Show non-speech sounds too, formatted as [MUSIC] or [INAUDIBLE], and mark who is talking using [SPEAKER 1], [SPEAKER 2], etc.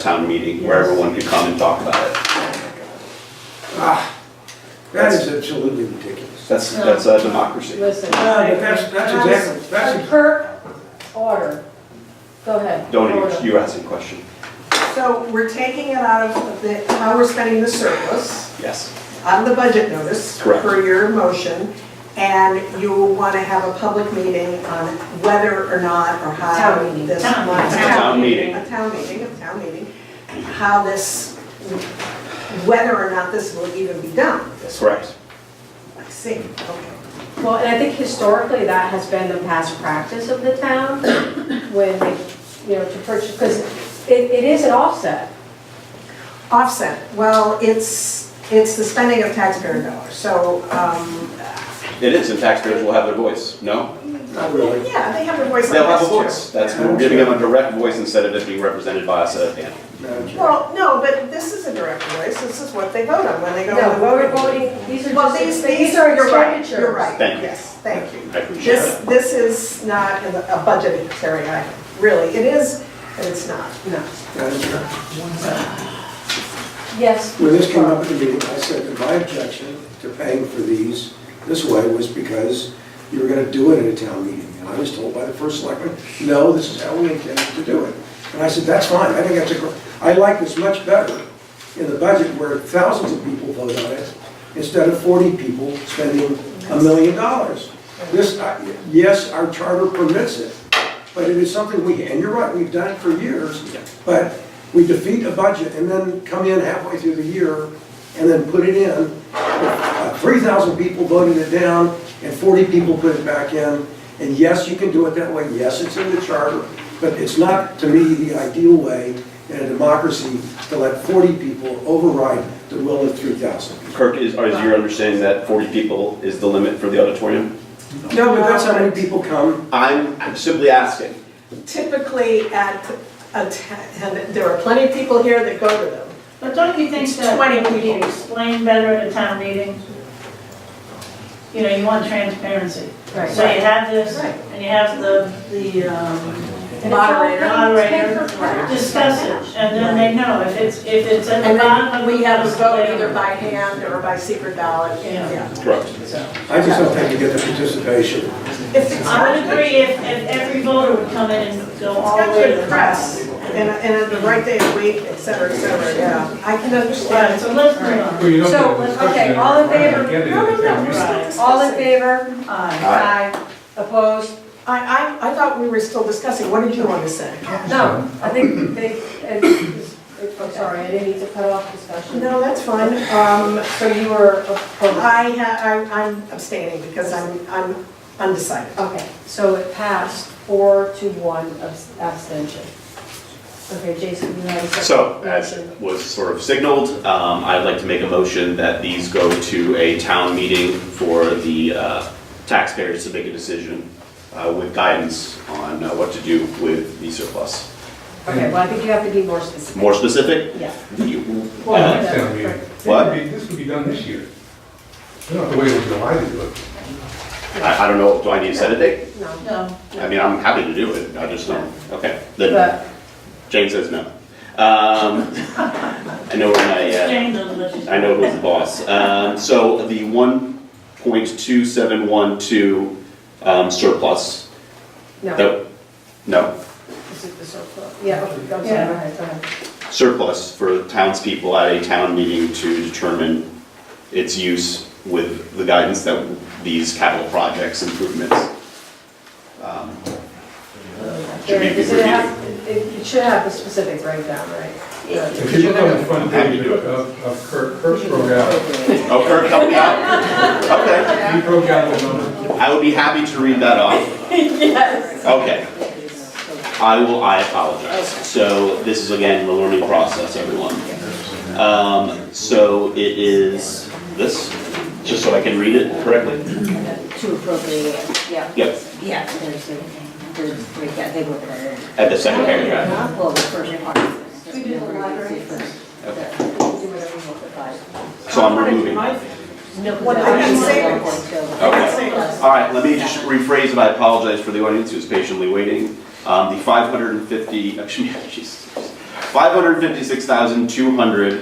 [SPEAKER 1] town meeting where everyone could come and talk about it.
[SPEAKER 2] Ah, that is absolutely ridiculous.
[SPEAKER 1] That's, that's a democracy.
[SPEAKER 3] Listen.
[SPEAKER 2] No, but that's- that's
[SPEAKER 3] House-
[SPEAKER 2] exactly- that's-
[SPEAKER 3] A perk order. Go ahead.
[SPEAKER 1] Don't,
[SPEAKER 3] order.
[SPEAKER 1] you were asking a question.
[SPEAKER 4] So we're taking it out of the, how we're spending the surplus
[SPEAKER 1] Yes,
[SPEAKER 4] on the budget notice
[SPEAKER 1] Correct.
[SPEAKER 4] per your motion, and you will want to have a public meeting on whether or not or how
[SPEAKER 3] Town meeting.
[SPEAKER 4] this.
[SPEAKER 3] Town meeting.
[SPEAKER 1] Town meeting.
[SPEAKER 4] A town meeting, a town meeting, how this, whether or not this will even be done.
[SPEAKER 1] that's correct.
[SPEAKER 4] I see, okay.
[SPEAKER 3] Well, and I think historically, that has been the past practice of the town when, they, you know, to purchase, because it, it is an offset.
[SPEAKER 4] Offset, well, it's, it's the spending of taxpayer dollars, so, um,
[SPEAKER 1] It is, and taxpayers will have their voice, no?
[SPEAKER 2] Not really.
[SPEAKER 4] yeah, they have a voice on this
[SPEAKER 1] They'll have a
[SPEAKER 4] too.
[SPEAKER 1] voice. That's, we're giving them a direct voice instead of it being represented by us at a panel.
[SPEAKER 2] Madam Chair.
[SPEAKER 4] Well, no, but this is a direct voice, this is what they vote on when they go to
[SPEAKER 3] No,
[SPEAKER 4] the
[SPEAKER 3] we're
[SPEAKER 4] voting.
[SPEAKER 3] voting, these are
[SPEAKER 4] Well,
[SPEAKER 3] just,
[SPEAKER 4] these,
[SPEAKER 3] these
[SPEAKER 4] these
[SPEAKER 3] are
[SPEAKER 4] are, you're right,
[SPEAKER 3] expenditures.
[SPEAKER 4] you're right,
[SPEAKER 1] Thank you.
[SPEAKER 4] yes, thank you.
[SPEAKER 1] I appreciate
[SPEAKER 4] This,
[SPEAKER 1] it.
[SPEAKER 4] this is not a a budgetary item, really, it is, but it's not.
[SPEAKER 3] No.
[SPEAKER 2] Madam Chair,
[SPEAKER 3] Yes.
[SPEAKER 2] When this came up at the meeting, I said that my objection to paying for these this way was because you were gonna do it at a town meeting. And I was told by the first selectman, no, this is how we intend to do it. And I said, that's fine, I think that's a, gr- I like this much better in the budget where thousands of people vote on it instead of 40 people spending a million dollars. This, I- yes, our charter permits it, but it is something we, and you're right, we've done it for years, but we defeat a budget and then come in halfway through the year and then put it in. Uh, 3,000 people voted it down and 40 people put it back in. And yes, you can do it that way, yes, it's in the charter, but it's not, to me, the ideal way in a democracy to let 40 people override the will of 3,000.
[SPEAKER 1] Kirk, is, is your understanding that 40 people is the limit for the auditorium?
[SPEAKER 2] No, but that's how many people come.
[SPEAKER 1] I'm I'm simply asking.
[SPEAKER 4] Typically at, a ta- and there are plenty of people here that go to them.
[SPEAKER 5] But don't you think
[SPEAKER 4] It's
[SPEAKER 5] that
[SPEAKER 4] 20
[SPEAKER 5] it would be
[SPEAKER 4] people.
[SPEAKER 5] explained better at a town meeting? You know, you want transparency.
[SPEAKER 3] Right.
[SPEAKER 5] So you have this,
[SPEAKER 4] Right.
[SPEAKER 5] and you have the, the um,
[SPEAKER 4] Moderator.
[SPEAKER 5] moderator discuss it, and then they know if it's, if it's at the
[SPEAKER 4] And
[SPEAKER 5] bottom
[SPEAKER 4] then
[SPEAKER 5] of the.
[SPEAKER 4] we have a
[SPEAKER 5] list,
[SPEAKER 4] vote
[SPEAKER 5] they-
[SPEAKER 4] either by hand or by secret ballot,
[SPEAKER 5] Yeah.
[SPEAKER 4] yeah.
[SPEAKER 1] Correct.
[SPEAKER 2] I just don't think you get the participation.
[SPEAKER 4] If it's
[SPEAKER 5] I
[SPEAKER 4] not
[SPEAKER 5] would agree if, if every voter would come in and go all the
[SPEAKER 4] got
[SPEAKER 5] way to
[SPEAKER 4] good
[SPEAKER 5] the press.
[SPEAKER 4] press, and, and at the right day of the week, et cetera, et cetera, yeah. I can
[SPEAKER 5] Yeah,
[SPEAKER 4] understand.
[SPEAKER 5] so let's move on.
[SPEAKER 6] Well, you don't
[SPEAKER 3] So,
[SPEAKER 6] get a
[SPEAKER 3] let's-
[SPEAKER 6] discussion
[SPEAKER 3] okay,
[SPEAKER 6] in
[SPEAKER 3] all in
[SPEAKER 6] front of
[SPEAKER 3] favor?
[SPEAKER 6] the
[SPEAKER 4] No, no,
[SPEAKER 6] candidate
[SPEAKER 4] no,
[SPEAKER 6] at
[SPEAKER 4] we're
[SPEAKER 6] the town
[SPEAKER 4] still
[SPEAKER 6] meeting.
[SPEAKER 4] discussing.
[SPEAKER 3] All in favor?
[SPEAKER 5] Aye.
[SPEAKER 1] Aye.
[SPEAKER 3] Opposed?
[SPEAKER 4] I, I, I thought we were still discussing, what did you want to say?
[SPEAKER 3] No, I think they, and- I'm sorry, I didn't mean to cut off discussion.
[SPEAKER 4] No, that's fine, um,
[SPEAKER 3] So you were opposed?
[SPEAKER 4] I, ha- I'm- I'm abstaining because I'm, I'm undecided.
[SPEAKER 3] Okay, so it passed four to one abs- abstention. Okay, Jason, you have a second?
[SPEAKER 1] So, uh, as
[SPEAKER 3] motion?
[SPEAKER 1] was sort of signaled, um, I'd like to make a motion that these go to a town meeting for the uh, taxpayers to make a decision uh, with guidance on uh, what to do with the surplus.
[SPEAKER 3] Okay, well, I think you have to be more specific.
[SPEAKER 1] More specific,
[SPEAKER 3] Yeah.
[SPEAKER 1] the-
[SPEAKER 6] Well,
[SPEAKER 3] Yeah.
[SPEAKER 6] next town meeting.
[SPEAKER 1] What?
[SPEAKER 6] This would be- This would be done this year. You don't have to wait until July to do it.
[SPEAKER 1] I I don't know, do I need to set a date?
[SPEAKER 3] No,
[SPEAKER 5] No.
[SPEAKER 1] I mean, I'm happy to do it, I just don't, okay. Then
[SPEAKER 3] but,
[SPEAKER 1] Jane says no. Um, [LAUGHS] I know where my, uh,
[SPEAKER 5] Jane doesn't let you.
[SPEAKER 1] I know who's the boss. Um, so the one point two seven one two, um, surplus,
[SPEAKER 3] no,
[SPEAKER 1] that, no,
[SPEAKER 3] this is the surplus. Yeah, okay, I'm sorry, go
[SPEAKER 5] Yeah.
[SPEAKER 3] ahead, go ahead.
[SPEAKER 1] surplus for townspeople at a town meeting to determine its use with the guidance that these capital projects improvements. um, Should be
[SPEAKER 3] Yeah, does it
[SPEAKER 1] reviewed.
[SPEAKER 3] have- It it should have the specific breakdown, right? Yeah.
[SPEAKER 6] If you look on the front
[SPEAKER 1] Happy
[SPEAKER 6] page
[SPEAKER 1] to do it.
[SPEAKER 6] of, of Kirk, Kirk's broke out,
[SPEAKER 1] Oh, Kirk, help me out. [LAUGHS] Okay,
[SPEAKER 6] he broke out the number.
[SPEAKER 1] I would be happy to read that off. Yes. Okay. I will, I apologize. So this is again the learning process, everyone. Um, so it is this, just so I can read it correctly?
[SPEAKER 7] To appropriate, it, yeah,
[SPEAKER 1] Yep,
[SPEAKER 7] yeah, there's a, there's, we got, they were.
[SPEAKER 1] at the second paragraph.
[SPEAKER 7] Well, the first part. is-
[SPEAKER 3] We did the library first.
[SPEAKER 1] Okay.
[SPEAKER 7] Do whatever you want to buy.
[SPEAKER 1] So I'm removing. All
[SPEAKER 7] No, 'cause
[SPEAKER 4] Well,
[SPEAKER 7] that
[SPEAKER 4] I
[SPEAKER 7] was
[SPEAKER 4] can
[SPEAKER 7] one
[SPEAKER 4] say
[SPEAKER 7] of
[SPEAKER 4] it.
[SPEAKER 7] the points, so-
[SPEAKER 1] Okay. I can right, let me just rephrase and I [LAUGHS] apologize for the audience who's patiently waiting. Um, the five hundred and fifty, actually, Jesus. five hundred fifty-six thousand two hundred